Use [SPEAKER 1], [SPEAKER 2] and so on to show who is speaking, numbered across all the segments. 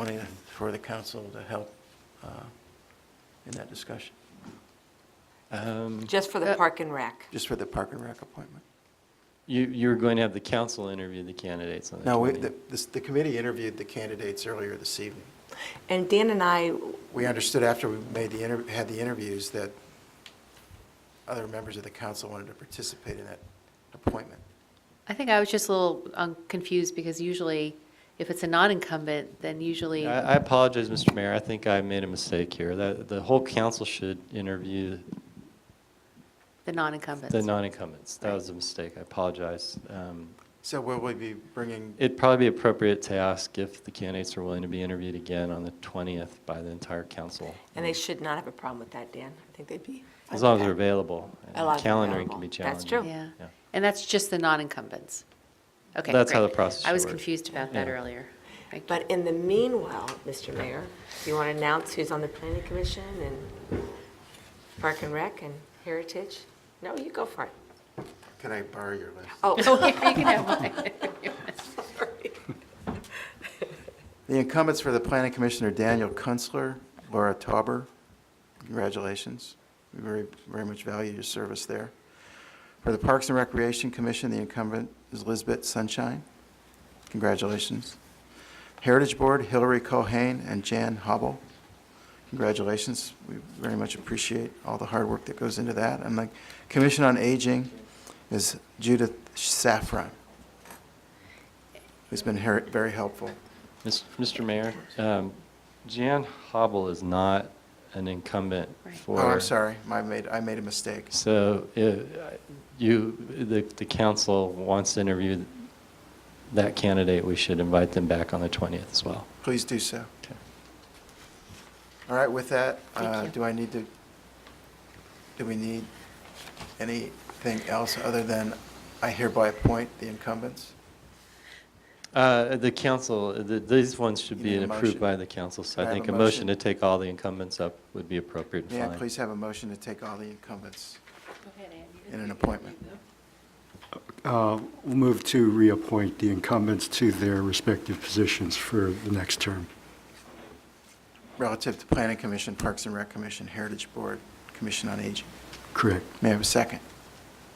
[SPEAKER 1] wanting for the council to help uh, in that discussion. Um,
[SPEAKER 2] Just for the
[SPEAKER 3] Uh,
[SPEAKER 2] park and rec.
[SPEAKER 1] Just for the Park and Rec appointment.
[SPEAKER 4] You, you were going to have the council interview the candidates on the
[SPEAKER 1] No, we-
[SPEAKER 4] 20th.
[SPEAKER 1] the this- the committee interviewed the candidates earlier this evening.
[SPEAKER 2] And Dan and I,
[SPEAKER 1] We understood after we made the, inter- had the interviews that other members of the council wanted to participate in that appointment.
[SPEAKER 3] I think I was just a little um, confused because usually if it's a non-incumbent, then usually,
[SPEAKER 4] I I apologize, Mr. Mayor, I think I made a mistake here. The, the whole council should interview
[SPEAKER 3] the non-incumbents.
[SPEAKER 4] the non-incumbents. That was a mistake, I apologize. Um,
[SPEAKER 1] So will we be bringing,
[SPEAKER 4] It'd probably be appropriate to ask if the candidates are willing to be interviewed again on the 20th by the entire council,
[SPEAKER 2] and they should not have a problem with that, Dan. I think they'd be. fine
[SPEAKER 4] as long as
[SPEAKER 2] with
[SPEAKER 4] they're
[SPEAKER 2] that.
[SPEAKER 4] available.
[SPEAKER 2] As long as they're
[SPEAKER 4] Calendaring can
[SPEAKER 2] available.
[SPEAKER 4] be
[SPEAKER 2] That's
[SPEAKER 4] challenging.
[SPEAKER 2] true.
[SPEAKER 3] Yeah,
[SPEAKER 4] Yeah.
[SPEAKER 3] and that's just the non-incumbents. Okay,
[SPEAKER 4] That's how
[SPEAKER 3] great.
[SPEAKER 4] the process
[SPEAKER 3] I was
[SPEAKER 4] should work.
[SPEAKER 3] confused about that
[SPEAKER 4] Yeah.
[SPEAKER 3] earlier. Thank you.
[SPEAKER 2] But in the meanwhile, Mr. Mayor, do you want to announce who's on the planning commission and park and rec and heritage? No, you go for it.
[SPEAKER 1] can I borrow your list?
[SPEAKER 2] Oh,
[SPEAKER 3] You can have one.
[SPEAKER 2] sorry.
[SPEAKER 1] The incumbents for the planning commission are Daniel Kunstler, Laura Tauber. Congratulations. We very, very much value your service there. For the Parks and Recreation Commission, the incumbent is Lisbeth Sunshine. Congratulations. Heritage Board, Hillary Cohane and Jan Hobble. Congratulations. We very much appreciate all the hard work that goes into that. And the Commission on Aging is Judith Safran, who's been her- very helpful.
[SPEAKER 4] Mis- Mr. Mayor, um, Jan Hobble is not an incumbent
[SPEAKER 3] Right.
[SPEAKER 4] for.
[SPEAKER 1] Oh, I'm sorry, I made, I made a mistake.
[SPEAKER 4] So uh, you, the, the council wants to interview that candidate, we should invite them back on the 20th as well.
[SPEAKER 1] Please do so.
[SPEAKER 4] Okay.
[SPEAKER 1] All right, with that,
[SPEAKER 3] Thank
[SPEAKER 1] uh,
[SPEAKER 3] you.
[SPEAKER 1] do I need to, do we need anything else other than I hereby appoint the incumbents?
[SPEAKER 4] Uh, The council, th- these ones should
[SPEAKER 1] You
[SPEAKER 4] be
[SPEAKER 1] need a
[SPEAKER 4] approved
[SPEAKER 1] motion.
[SPEAKER 4] by the council, so
[SPEAKER 1] Can I have
[SPEAKER 4] I think
[SPEAKER 1] a
[SPEAKER 4] a motion to
[SPEAKER 1] motion?
[SPEAKER 4] take all the incumbents up would be appropriate and
[SPEAKER 1] May I
[SPEAKER 4] fine.
[SPEAKER 1] please have a motion to take all the incumbents in an appointment?
[SPEAKER 5] Uh, We'll move to reappoint the incumbents to their respective positions for the next term.
[SPEAKER 1] Relative to Planning Commission, Parks and Rec Commission, Heritage Board, Commission on Aging.
[SPEAKER 5] Correct.
[SPEAKER 1] May I have a second?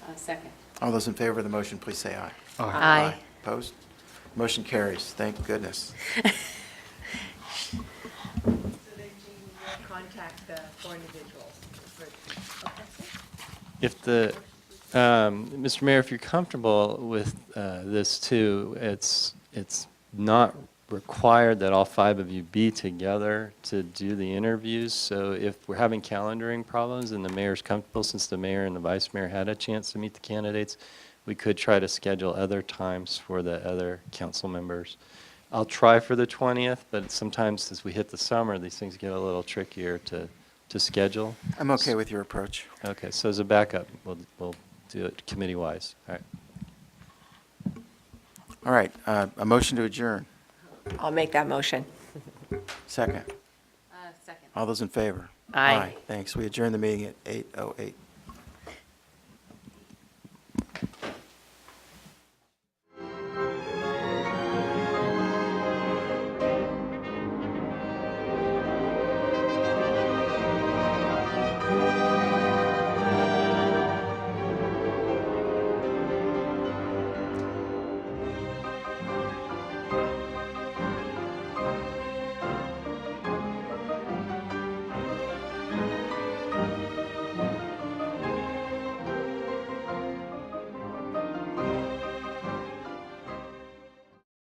[SPEAKER 3] A second.
[SPEAKER 1] All those in favor of the motion, please say aye.
[SPEAKER 5] Aye.
[SPEAKER 3] Aye.
[SPEAKER 1] Opposed? Motion carries, thank goodness.
[SPEAKER 6] So then Jean will contact the four individuals for, okay.
[SPEAKER 4] If the, um, Mr. Mayor, if you're comfortable with uh, this too, it's, it's not required that all five of you be together to do the interviews. So if we're having calendaring problems and the mayor's comfortable, since the mayor and the vice mayor had a chance to meet the candidates, we could try to schedule other times for the other council members. I'll try for the 20th, but sometimes as we hit the summer, these things get a little trickier to, to schedule.
[SPEAKER 1] I'm okay with your approach.
[SPEAKER 4] Okay, so as a backup, we'll, we'll do it committee-wise. All right.
[SPEAKER 1] All right, uh, a motion to adjourn,
[SPEAKER 2] I'll make that motion.
[SPEAKER 1] second.
[SPEAKER 3] A second.
[SPEAKER 1] All those in favor?
[SPEAKER 3] Aye.
[SPEAKER 1] Thanks. We adjourn the meeting at 8:08.